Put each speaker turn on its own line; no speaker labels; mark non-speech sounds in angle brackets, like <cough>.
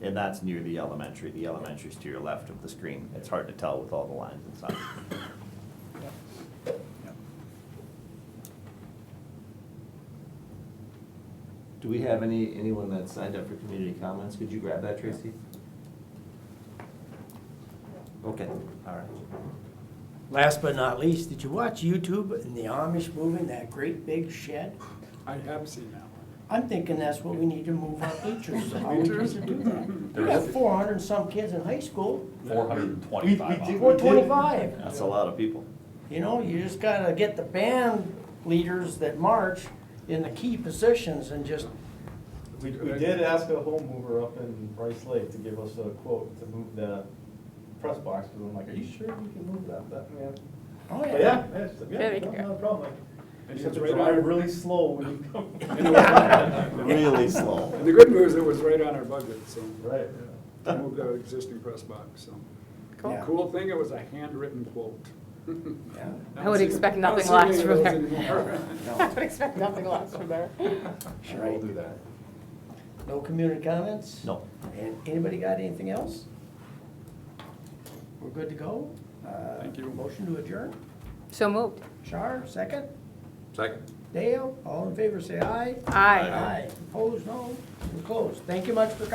And that's near the elementary. The elementary's to your left of the screen. It's hard to tell with all the lines and stuff. Do we have any, anyone that signed up for community comments? Could you grab that, Tracy? Okay, all right.
Last but not least, did you watch YouTube and the Amish moving that great big shed?
I have seen that one.
I'm thinking that's what we need to move our teachers, so how we need to do that. We got four hundred and some kids in high school,
Four hundred and twenty-five hours.
four twenty-five.
That's a lot of people.
You know, you just gotta get the band leaders that march in the key positions and just,
We, we did ask a home mover up in Rice Lake to give us a quote to move the press box, because I'm like, are you sure you can move that, that man?
oh
Yeah,
yeah.
yeah, it's-
Yeah,
yeah,
we can
no, no problem.
And
You have
it's
to
right
drive
on,
really slow when you
<laughs>
come.
Really <laughs> slow.
and the good news, it was right on our budget, so
Right.
we moved our existing press box, so.
Cool.
The Cool thing, it was a handwritten quote.
Yeah.
I
don't
would
see-
expect
I don't
nothing
see many
less
of
from
those
there.
anymore. <laughs>
I would expect nothing less from there.
Sure, I'll do that.
No community comments?
No.
And Anybody got anything else? We're good to go? Uh,
Thank you.
Motion to adjourn?
So moved.
Char, second?
Second.
Dale, all in favor, say aye.
Aye.
Aye. Opposed, no? We're closed. Thank you much for coming.